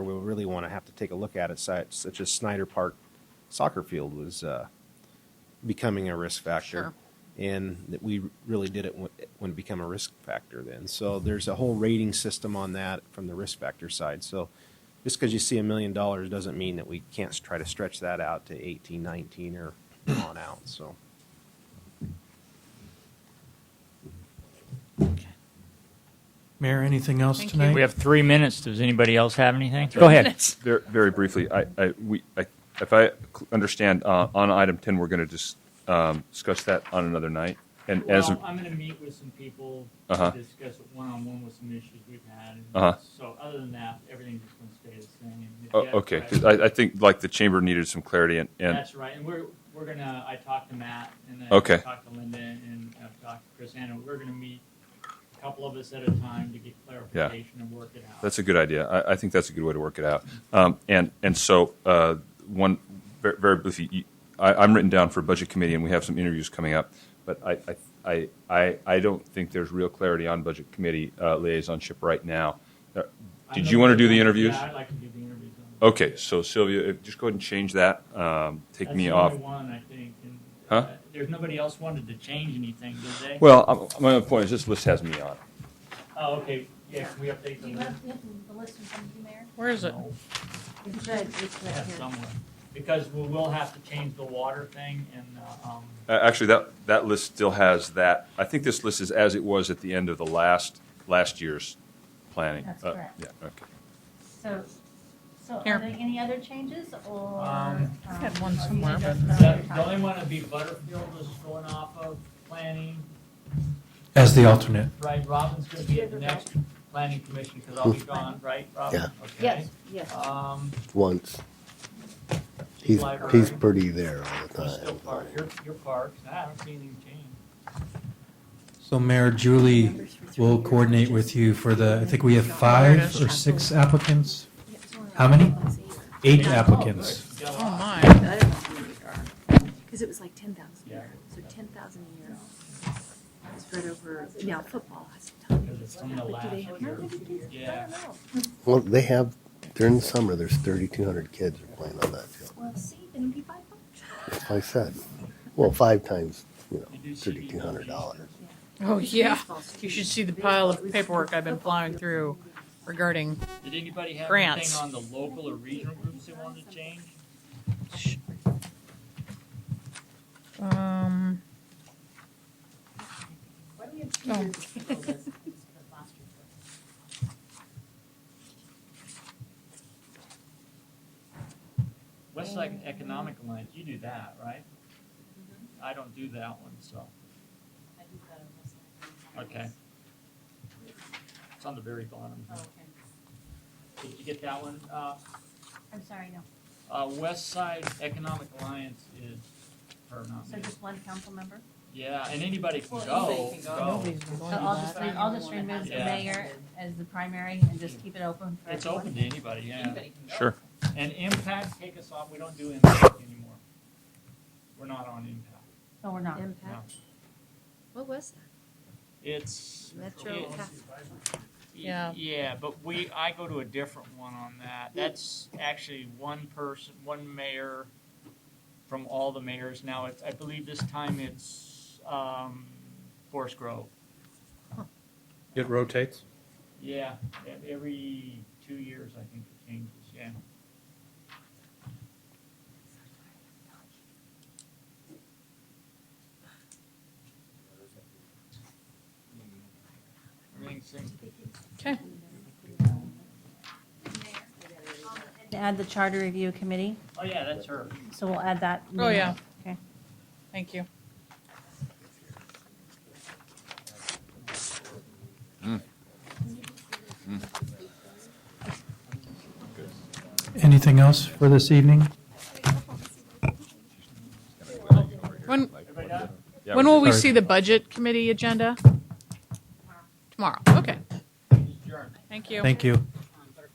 we really want to have to take a look at it, si- such as Snyder Park soccer field was uh, becoming a risk factor. Sure. And that we really did it when when it became a risk factor then. So there's a whole rating system on that from the risk factor side. So just because you see a million dollars doesn't mean that we can't s- try to stretch that out to 18, 19 or on out, so. Mayor, anything else Thank you. tonight? We have three minutes. Does anybody else have anything? Go ahead. minutes. Very, very briefly, I, I, we, I, if I cl- understand, uh, on item ten, we're gonna just, um, discuss that on another night. And as, Well, I'm going to meet with some people Uh-huh. to discuss it one-on-one with some issues we've had. Uh-huh. So other than that, everything's just going to stay the same. oh, Yeah, okay, 'cause right. I, I think like the chamber needed some clarity and, and, That's right, and we're, we're gonna, I talked to Matt, and then Okay. I talked to Linda, and I've talked to Chris Anna, we're gonna meet a couple of us at a time to get clarification and work it out. that's a good idea. I, I think that's a good way to work it out. Um, and, and so, uh, one, very, very briefly, you- I, I'm written down for budget committee and we have some interviews coming up. But I, I, I, I, I don't think there's real clarity on budget committee, uh, liaisonship right now. Uh, I Did know you want to that- do the interviews? Oh, Yeah, I'd like to do the interviews. on- Okay, so Sylvia, if- just go ahead and change that. Um, take That's me the off. only one, I think, and, Huh? uh, there's nobody else wanted to change anything, did they? Well, I'm- my other point is this list has me on. it. Oh, okay, yeah, can we update Do the you list? have the list in front of you, Mayor? Where is it? No, It's good, it's yeah, somewhere, because we will have to change the water thing and, uh, um, Uh, actually, that that list still has that. I think this list is as it was at the end of the last last year's planning. That's Uh, correct. Yeah. Okay. So, so are Here. there any other changes or? Um, I had um, one are you somewhere, just- but- are you The talking- the only one would be Butterfield is going off of planning, As the alternate. right? Robin's gonna be at the next planning commission, because I'll be gone, right, Robin? Yeah. Yes, yes. Um, once. He's Library. he's pretty there all the there's still park, time. your, your parks, I haven't seen anything change. So Mayor Julie will coordinate with you for the, I think we have five or six applicants, How many? eight applicants. Oh, Yellow. my. Because it was like ten thousand a Yeah. year, so ten thousand a year. Spread over, now football has a ton. Because it's from the But do they last have year. Yeah. Well, they have during the summer. There's 3,200 kids are playing on that field. Well, see, then it'd be five bucks. That's what I said. Well, five times, you know, They do CD $3,200. Oh, yeah. You should see the pile of paperwork I've been plowing through regarding, Did anybody have Grants. anything on the local or regional groups they wanted to change? um, Why do we have two Oh. years of the list instead of last year's list? Westside Economic Alliance, you do that, right? Mm-hmm. I don't do that one, so, I do that on this one. okay. It's on the very bottom. Oh, okay. Did you get that one? Uh, I'm sorry, no. uh, West Side Economic Alliance is her So nominee. just one council member? Yeah, and anybody can Well, go, anybody can go. nobody's been So going I'll to just, that. re- I'll just remove the Yeah. mayor as the primary and just keep it open for It's everyone? open to anybody, yeah. Sure. And Impact, take us off, we don't do Impact anymore. We're not on Impact, No, we're not. no. Impact, what was that? It's. Metro it's- Capital. Yeah. Yeah, but we, I go to a different one on that. That's actually one person, one mayor from all the mayors. Now, it's, I believe this time it's, um, Forest Grove. It rotates? Yeah, e- every two years, I think it changes, yeah. Everything seems Okay. And Add the charter review committee, Oh, yeah, that's her. so we'll add that. Oh, yeah. Okay. Thank you. Anything else for this evening? When, Everybody done? Yeah, when will we Sorry. see the budget committee agenda? Tomorrow, okay. Adjourned. Thank you. Thank you.